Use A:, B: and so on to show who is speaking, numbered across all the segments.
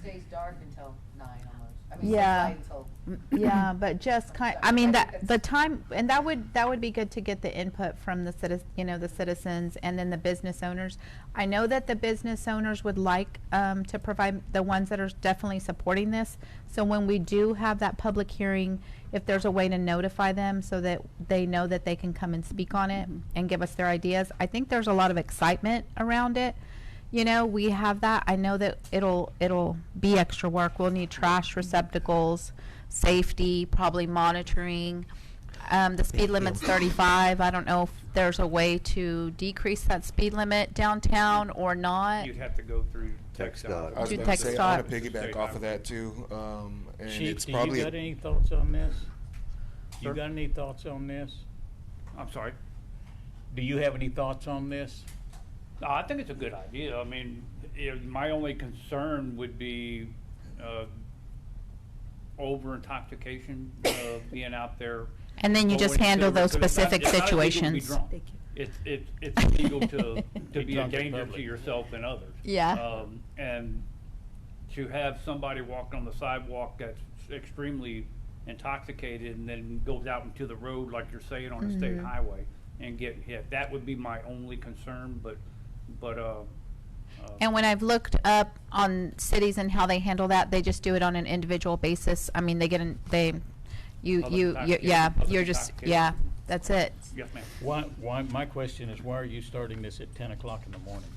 A: stays dark until nine almost. I mean, stays
B: Yeah.
A: light until-
B: Yeah, but just kind, I
A: Sorry,
B: mean,
A: I
B: that,
A: think
B: the
A: that's-
B: time, and that would, that would be good to get the input from the citi, you know, the citizens and then the business owners. I know that the business owners would like, um, to provide, the ones that are definitely supporting this. So when we do have that public hearing, if there's a way to notify them so that they know that they can come and speak on it and give us their ideas. I think there's a lot of excitement around it. You know, we have that. I know that it'll, it'll be extra work. We'll need trash receptacles safety, probably monitoring. Um, the speed limit's 35. I don't know if there's a way to decrease that speed limit downtown or not.
C: You'd have to go through
D: Text
C: TxDOT.
D: dot.
E: I was
B: Do
E: about to
B: Uh, text
E: say, I want
B: dot.
E: to piggyback off of that too, um, and it's
F: Chief, do
E: probably.
F: you got any thoughts on this? You
C: Sir?
F: got any thoughts on this?
C: I'm sorry.
F: Do you have any thoughts on this?
C: No, I think it's a good idea. I mean, you know, my only concern would be uh, over intoxication, uh, being out there.
B: And then you just
C: going to-
B: handle those
C: because it's not-
B: specific
C: it's not illegal to be
B: situations.
C: drunk.
G: Thank you.
C: It's, it's, it's illegal to, to
F: Be
C: be a
F: drunk in
C: danger to
F: public.
C: yourself and others.
B: Yeah.
C: Um, And to have somebody walking on the sidewalk that's extremely intoxicated and then goes out into the road, like you're saying, on a
B: Mm-hmm.
C: state highway and get hit, that would be my only concern, but, but, uh, uh,
B: And when I've looked up on cities and how they handle that, they just do it on an individual basis. I mean, they get in, they, you, you,
C: Public
B: you,
C: intoxication,
B: yeah,
C: public
B: you're just,
C: intoxication.
B: yeah, that's it.
C: yes, ma'am.
F: Why, why, my question is, why are you starting this at ten o'clock in the morning?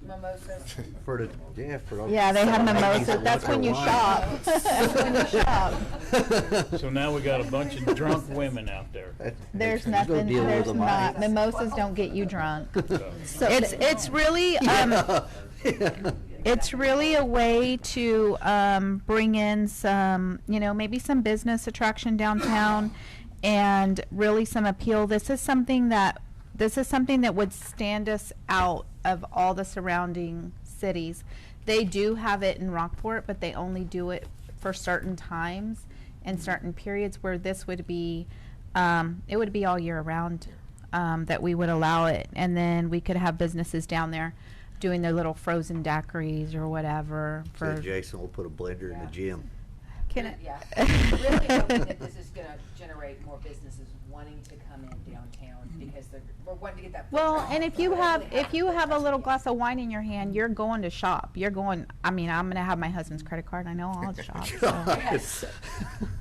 A: Mimosas.
D: For the, yeah, for. the-
B: Yeah, they have
D: Someone
B: mimosas.
D: needs to
B: That's
D: look
B: when you
D: at
B: shop.
D: wine.
B: That's when you
A: shop.
F: So now we got a bunch of drunk women out there.
D: That-
B: There's
D: you gonna
B: nothing,
D: deal with
B: there's
D: them,
B: not,
D: right?
B: mimosas don't get you drunk.
F: So-
B: It's, it's really, um, It's really a way to um, bring in some, you know, maybe some business attraction downtown, and really some appeal. This is something that this is something that would stand us out of all the surrounding cities. They do have it in Rockport, but they only do it for certain times and certain periods where this would be, um, it would be all year round um, that we would allow it, and then we could have businesses down there doing their little frozen daiquiris or whatever
D: So
B: for.
D: Jason will put a blender in the
A: Yeah.
D: gym.
B: Can I-
A: Yeah. I'm Really hoping that this is gonna generate more businesses wanting to come in downtown because they're, we're wanting to get that. foot
B: Mm-hmm. Well,
A: traffic.
B: and if you
A: We're
B: have,
A: really
B: if you
A: happy
B: have a
A: that's
B: little
A: what
B: glass of wine in your hand, you're going to shop. You're going, I mean, I'm gonna have my husband's credit card. I know I'll shop. So.
A: Yes.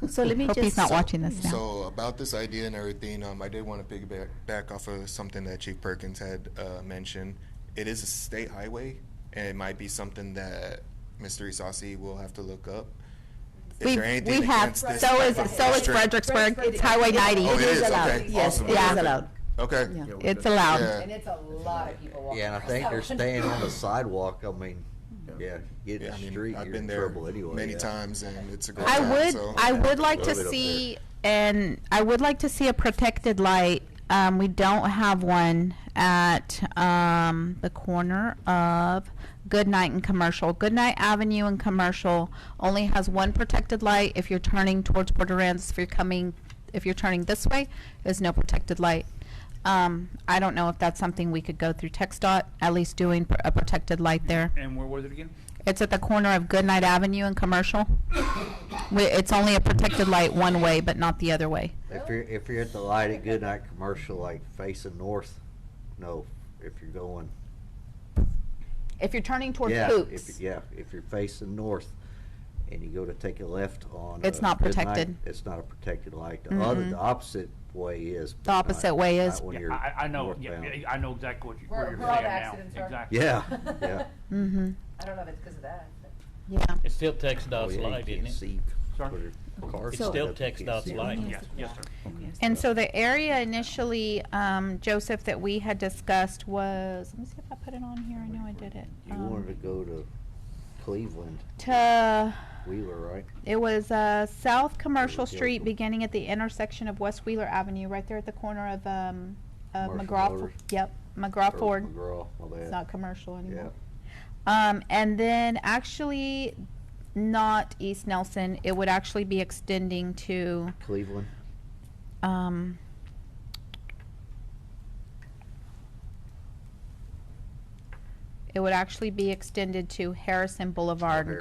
G: So let me
B: Hope
G: just.
B: he's not watching this now.
E: So about this idea and everything, um, I did want to piggyback back off of something that Chief Perkins had uh, mentioned. It is a state highway, and it might be something that Mr. Isasi will have to look up. Is
B: We,
E: there anything
B: we have,
E: against this
B: so is,
E: type of
B: so is
E: restrict-
B: Fredericksburg.
A: Fredericksburg.
B: It's Highway ninety.
E: Oh, it is,
A: allowed.
E: okay,
A: Yes,
E: awesome,
A: it is
E: perfect.
B: allowed.
E: Okay.
G: Yeah.
B: It's allowed.
E: Yeah.
A: And it's a lot of people walking.
D: Yeah, and I think they're staying on the sidewalk, I mean, yeah, get in
E: Yeah, I
D: the
E: mean,
D: street,
E: I've
D: you're
E: been
D: in
E: there
D: trouble anyway.
E: many
D: yeah.
E: times, and it's a great
B: I
E: time,
B: would,
E: so-
B: I would like to
D: Love it up
B: see, and I would like to see a protected light. Um, we don't have one at um, the corner of Goodnight and Commercial. Goodnight Avenue and Commercial only has one protected light. If you're turning towards Border Ends, if you're coming, if you're turning this way, there's no protected light. Um, I don't know if that's something we could go through TxDOT, at least doing pr- a protected light there.
C: And where was it again?
B: It's at the corner of Goodnight Avenue and Commercial. We- It's only a protected light one way, but not the other way.
D: If you're, if you're at the light at Goodnight Commercial, like facing north, no, if you're going,
B: If you're turning towards
D: yeah,
B: Hoops,
D: if, yeah, if you're facing north and you go to take a left on.
B: It's
D: uh,
B: not
D: Goodnight,
B: protected.
D: It's not a protected light. The other,
B: Mm-mm.
D: the opposite way is. but
B: The opposite
D: not-
B: way
D: not
B: is.
D: when
C: Yeah,
D: you're
C: I, I know, yeah,
D: northbound.
C: yeah, I know exactly what you,
A: Where-
C: where you're
A: where all
C: saying
A: the
C: now.
A: accidents are.
C: Exactly.
D: Yeah, yeah.
B: mm-hmm,
A: I don't know if it's because of that. but-
B: yeah.
F: It's still
D: Oh,
F: TxDOT's
D: yeah, you
F: light,
D: can't
F: isn't it?
D: see
C: Sorry?
D: where the cars
F: It's
D: lined
F: still
D: up, you can't
F: TxDOT's
D: see
F: light.
D: them.
C: Yes, yes, sir.
B: And so the area initially, um, Joseph, that we had discussed was, let me see if I put it on here, I know I did it.
D: You
B: Um,
D: wanted to go to Cleveland,
B: To,
D: Wheeler, right?
B: it was, uh, South Commercial
D: Hill.
B: Street, beginning at the intersection of West Wheeler Avenue, right there at the corner of, um, of
D: Commercial
B: McGraw,
D: Motors.
B: yep, McGraw
D: Or
B: Ford.
D: McGraw, my bad.
B: It's not commercial anymore.
D: Yeah.
B: Um, and then actually, not East Nelson. It would actually be extending to
D: Cleveland.
B: um, it would actually be extended to Harrison Boulevard.